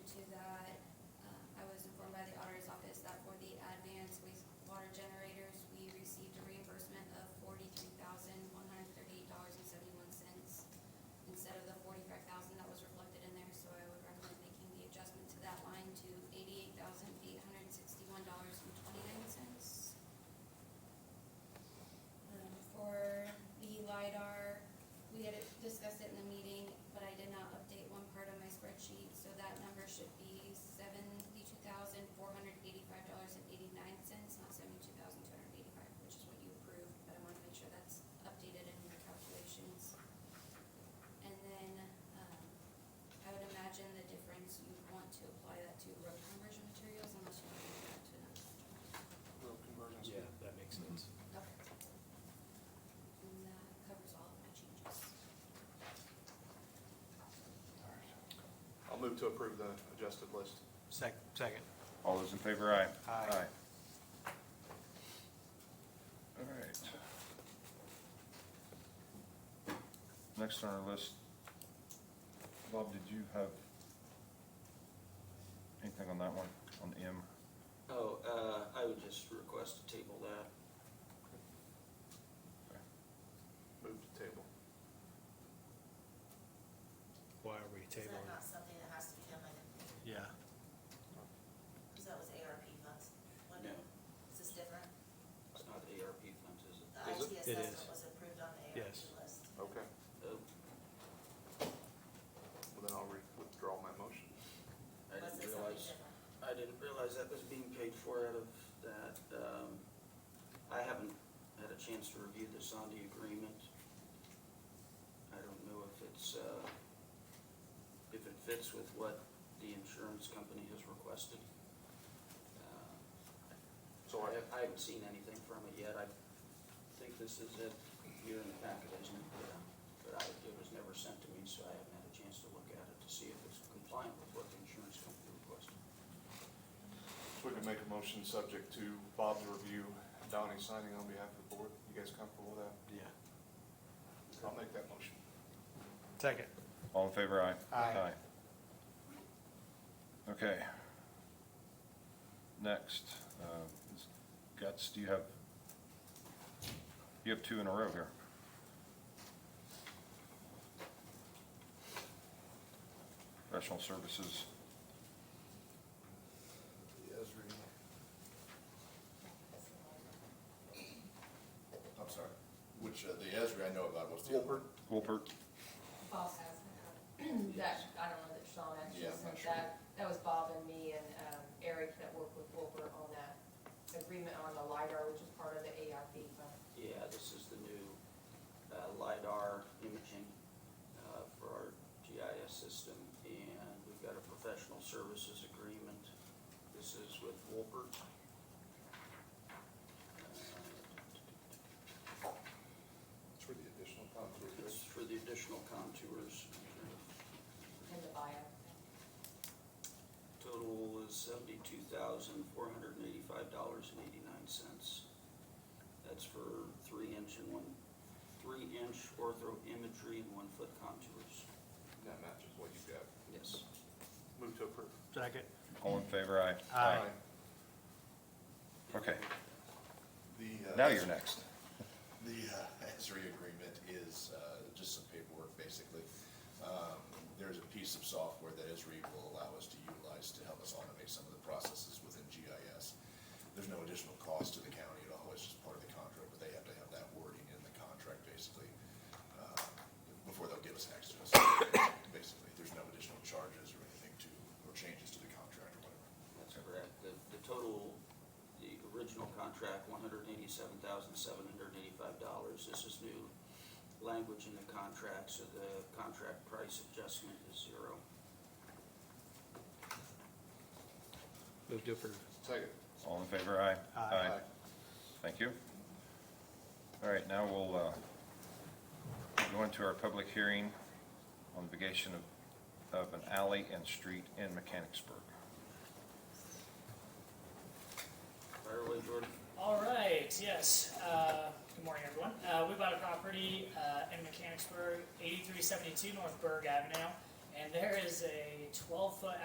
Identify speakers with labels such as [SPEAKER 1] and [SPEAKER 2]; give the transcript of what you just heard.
[SPEAKER 1] Um, Um, um, unless you want to apply that to road conversion materials, unless you want to do that to an actual.
[SPEAKER 2] road conversions.
[SPEAKER 3] Yeah, that makes sense.
[SPEAKER 1] Okay. And that covers all of my changes.
[SPEAKER 4] I'll move to approve the adjusted list.
[SPEAKER 5] Sec, second.
[SPEAKER 6] All those in favor, aye.
[SPEAKER 5] Aye.
[SPEAKER 6] All right. Next on our list, Bob, did you have anything on that one, on M?
[SPEAKER 7] Oh, uh, I would just request to table that.
[SPEAKER 4] Move to table.
[SPEAKER 3] Why are we
[SPEAKER 8] Is that not
[SPEAKER 3] tabling?
[SPEAKER 8] something that has to be done by the,
[SPEAKER 3] Yeah,
[SPEAKER 8] because that was ARP funds? wasn't it? Is this different?
[SPEAKER 7] It's not ARP funds, is it?
[SPEAKER 8] The
[SPEAKER 4] Is
[SPEAKER 8] IT
[SPEAKER 4] it?
[SPEAKER 3] It is.
[SPEAKER 8] assessment was approved on the ARP
[SPEAKER 3] Yes.
[SPEAKER 8] list.
[SPEAKER 4] Okay,
[SPEAKER 7] Oh,
[SPEAKER 4] well then I'll re- withdraw my motion.
[SPEAKER 7] I
[SPEAKER 8] Was
[SPEAKER 7] didn't
[SPEAKER 8] it something
[SPEAKER 7] realize,
[SPEAKER 8] different?
[SPEAKER 7] I didn't realize that was being paid for out of that. Um, I haven't had a chance to review the Sondi agreement. I don't know if it's, uh, if it fits with what the insurance company has requested. Uh,
[SPEAKER 4] So I,
[SPEAKER 7] I haven't seen anything from it yet. I think this is it here in the packet, isn't it? Yeah. But I, it was never sent to me, so I haven't had a chance to look at it to see if it's compliant with what the insurance company requested.
[SPEAKER 4] if we could make a motion subject to Bob's review, Donnie signing on behalf of the board, you guys comfortable with that?
[SPEAKER 3] yeah.
[SPEAKER 4] I'll make that motion.
[SPEAKER 5] Second.
[SPEAKER 6] All in favor, aye.
[SPEAKER 5] Aye.
[SPEAKER 6] Okay. Next, uh, is Guts, do you have, you have two in a row here. Professional services,
[SPEAKER 4] Yes, Reed.
[SPEAKER 9] I'm sorry, which, uh, the Esri I know about, what's the other?
[SPEAKER 4] Wolpert,
[SPEAKER 6] Wolpert,
[SPEAKER 10] Bob has that. That, I don't know that Sean actually
[SPEAKER 9] Yeah, I'm not
[SPEAKER 10] sent
[SPEAKER 9] sure.
[SPEAKER 10] that. That was Bob and me and um, Eric that worked with Wilbur on that agreement on the LiDAR, which is part of the ARP fund.
[SPEAKER 7] Yeah, this is the new uh, LiDAR imaging uh, for our GIS system, and we've got a professional services agreement. This is with Wolpert. Uh,
[SPEAKER 4] it's for the additional conflict,
[SPEAKER 7] It's
[SPEAKER 4] right?
[SPEAKER 7] for the additional contours.
[SPEAKER 10] in the bio.
[SPEAKER 7] Total is seventy-two thousand, four hundred and eighty-five dollars and eighty-nine cents. That's for three inch and one, three inch ortho imagery and one foot contours.
[SPEAKER 4] That matches what you've got.
[SPEAKER 7] Yes.
[SPEAKER 4] Move to approve.
[SPEAKER 5] Second.
[SPEAKER 6] all in favor, aye.
[SPEAKER 5] Aye.
[SPEAKER 6] Okay,
[SPEAKER 9] The, uh,
[SPEAKER 6] now you're next.
[SPEAKER 9] The uh, Esri agreement is uh, just some paperwork, basically. Um, There's a piece of software that Esri will allow us to utilize to help us automate some of the processes within GIS. There's no additional cost to the county at all, it's just part of the contract, but they have to have that wording in the contract, basically, uh, before they'll give us access, basically. There's no additional charges or anything to, or changes to the contract or whatever.
[SPEAKER 7] That's correct. The, the total, the original contract, one hundred and eighty-seven thousand, seven hundred and eighty-five dollars. This is new language in the contract, so the contract price adjustment is zero.
[SPEAKER 3] Move to approve.
[SPEAKER 4] Second.
[SPEAKER 6] All in favor, aye.
[SPEAKER 5] Aye.
[SPEAKER 6] Thank you. All right, now we'll uh, go into our public hearing on vacation of, of an alley and street in Mechanicsburg.
[SPEAKER 7] Fire away, Jordan.
[SPEAKER 11] All right, yes. Uh, good morning, everyone. Uh, we bought a property uh, in Mechanicsburg, 8372 North Berg Avenue, and there is a 12 foot